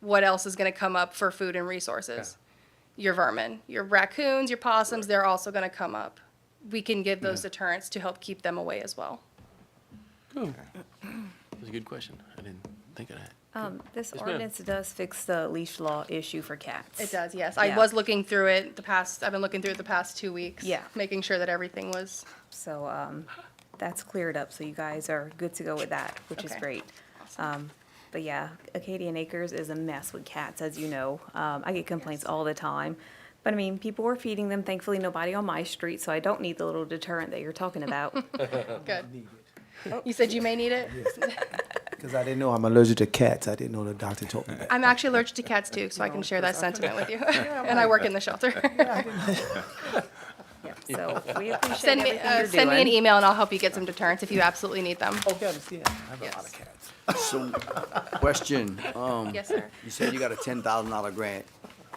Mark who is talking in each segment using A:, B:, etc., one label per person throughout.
A: what else is going to come up for food and resources? Your vermin, your raccoons, your possums, they're also going to come up. We can give those deterrents to help keep them away as well.
B: Cool. That's a good question. I didn't think of that.
C: Um, this
B: ma'am.
C: ordinance does fix the leash law issue for cats.
A: It does, yes. I
C: Yeah.
A: was looking through it the past, I've been looking through it the past two weeks.
C: Yeah.
A: Making sure that everything was,
C: So, um, that's cleared up, so you guys are good to go with that, which is
A: Okay.
C: great. Um, but yeah, Acadian Acres is a mess with cats, as you know. Um, I get complaints all the time. But I mean, people are feeding them. Thankfully, nobody on my street, so I don't need the little deterrent that you're talking about.
A: good. You said you may need it?
D: Because I didn't know I'm allergic to cats. I didn't know the doctor told me that.
A: I'm actually allergic to cats too, so I can share that sentiment with you. And I work in the shelter.
C: Yep, So we appreciate
A: Send me,
C: everything
A: uh,
C: you're
A: send me an
C: doing.
A: email and I'll help you get some deterrents if you absolutely need them.
D: Okay, I understand. I have a lot
A: Yes.
D: of cats.
E: So, question, um,
A: Yes, sir.
E: you said you got a ten thousand dollar grant.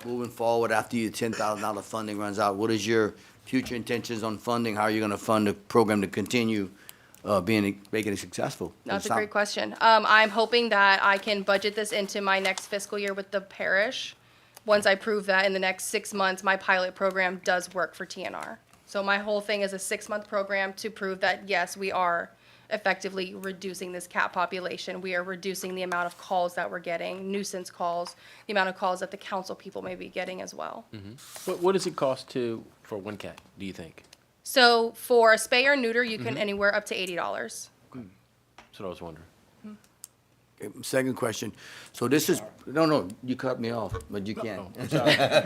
E: Moving forward, after your ten thousand dollar funding runs out, what is your future intentions on funding? How are you gonna fund the program to continue, uh, being, making it successful?
A: That's a great question. Um, I'm hoping that I can budget this into my next fiscal year with the parish. Once I prove that in the next six months, my pilot program does work for TNR. So my whole thing is a six-month program to prove that, yes, we are effectively reducing this cat population. We are reducing the amount of calls that we're getting, nuisance calls, the amount of calls that the council people may be getting as well.
E: Mm-hmm.
B: What, what does it cost to, for one cat, do you think?
A: So for a spay or neuter, you
E: Mm-hmm.
A: can anywhere up to eighty dollars.
B: That's what I was wondering.
E: Okay, Second question, so this is, no, no, you cut me off, but you can.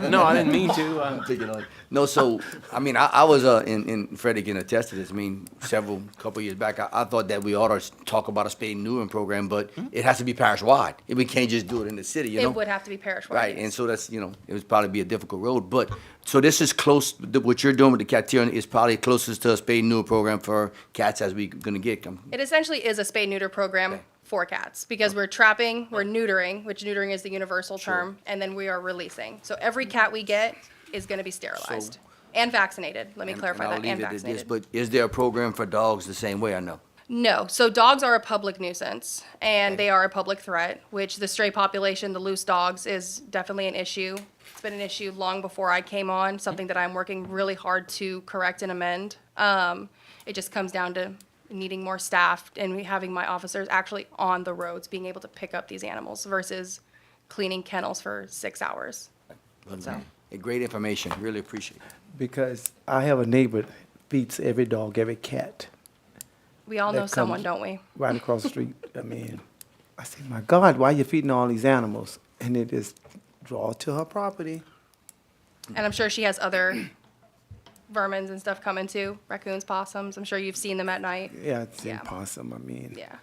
B: No, I didn't mean to.
E: I'm
B: um,
E: thinking like- No, so, I mean, I, I was, uh, and, and Freddie can attest to this, I mean, several, couple years back, I, I thought that we ought to s- talk about a spay and neutering program, but it has to be parish-wide. We can't just do it in the city, you know?
A: It would have to be parish-wide.
E: Right,
A: yes.
E: and so that's, you know, it would probably be a difficult road, but, so this is close, th- what you're doing with the cat tearing is probably closest to a spay and neuter program for cats as we gonna get. um,
A: It essentially is a spay neuter program
E: Okay.
A: for cats because we're trapping, we're neutering, which neutering is the universal term, and then we are releasing. So every cat we get is going to be sterilized and vaccinated. Let me
E: and-
A: clarify
E: and I'll
A: that. And
E: leave it at this,
A: vaccinated.
E: But is there a program for dogs the same way, I know?
A: No. So dogs are a public nuisance and they are a public threat, which the stray population, the loose dogs, is definitely an issue. It's been an issue long before I came on, something that I'm working really hard to correct and amend. Um, it just comes down to needing more staff and me having my officers actually on the roads, being able to pick up these animals versus cleaning kennels for six hours. So.
E: Great information, really appreciate it.
D: Because I have a neighbor that feeds every dog, every cat,
A: We all know
D: That
A: someone,
D: comes-
A: don't we?
D: right across the street. I mean, I said, my God, why you feeding all these animals? And it is draw to her property.
A: And
D: Mm.
A: I'm sure she has other vermins and stuff coming too, raccoons, possums. I'm sure you've seen them at night.
D: Yeah, it's
A: Yeah.
D: impossible. I mean,
A: Yeah.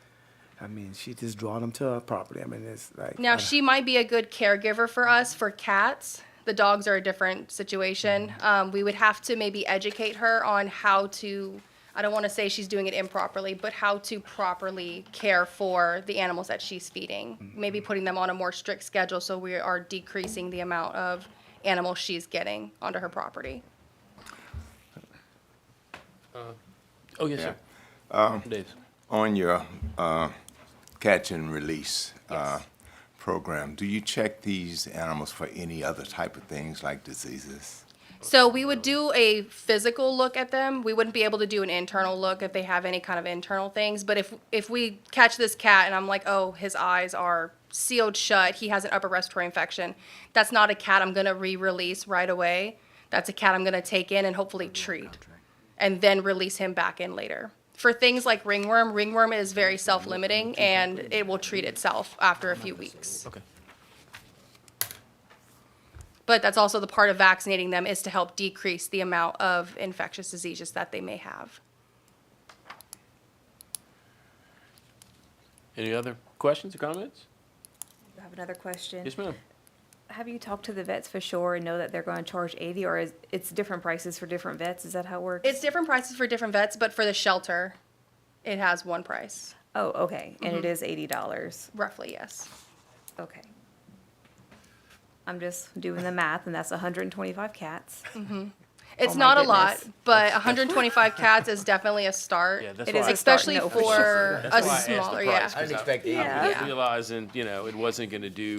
D: I mean, she just draw them to her property. I mean, it's like
A: Now
D: uh,
A: she might be a good caregiver for us for cats. The dogs are a different situation. Um, we would have to maybe educate her on how to. I don't want to say she's doing it improperly, but how to properly care for the animals that she's feeding. Maybe putting them on a more strict schedule so we are decreasing the amount of animals she's getting onto her property.
B: Oh, yes, sir. Dave.
F: On your uh, catch and release uh, program, do you check these animals for any other type of things like diseases?
A: So we would do a physical look at them. We wouldn't be able to do an internal look if they have any kind of internal things. But if if we catch this cat and I'm like, oh, his eyes are sealed shut, he has an upper respiratory infection. That's not a cat I'm gonna re-release right away. That's a cat I'm gonna take in and hopefully treat, and then release him back in later. For things like ringworm, ringworm is very self-limiting and it will treat itself after a few weeks.
B: Okay.
A: But that's also the part of vaccinating them is to help decrease the amount of infectious diseases that they may have.
B: Any other questions or comments?
A: e-
C: I have another question.
B: Yes, ma'am.
C: Have you talked to the vets for sure and know that they're going to charge eighty, or is it's different prices for different vets? Is that how it works?
A: It's different prices for different vets, but for the shelter, it has one price,
C: Oh, okay, and it is eighty dollars.
A: roughly, yes.
C: Okay. I'm just doing the math, and that's hundred and twenty-five cats.
A: It's
C: Oh my
A: not a lot,
C: goodness.
A: but 125 cats is definitely a start.
B: Yeah, that's
C: It is
B: why-
C: a start,
A: Especially
C: no,
A: for a
C: sure.
B: why I asked the
A: smaller,
B: price,
A: yeah.
B: I didn't
E: expect
C: Yeah.
A: Yeah.
B: Realizing, you know, it wasn't going to do